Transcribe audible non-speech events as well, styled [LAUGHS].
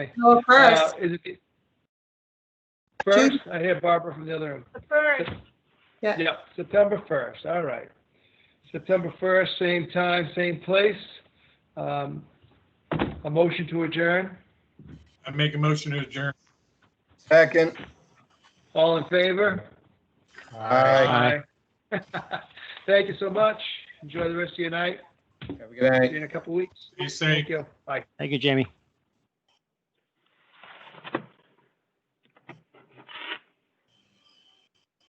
No, Uh, first, is it- First, I hear Barbara from the other room. The first, yeah, Yep, September first, all right. September first, same time, same place. Um, a motion to adjourn. I make a motion to adjourn. Second. All in favor? Aye. Aye. [LAUGHS] Thank you so much. Enjoy the rest of your night. Have a good See night. you in a couple of weeks. Be safe. Thank you. Bye. Thank you, Jamie.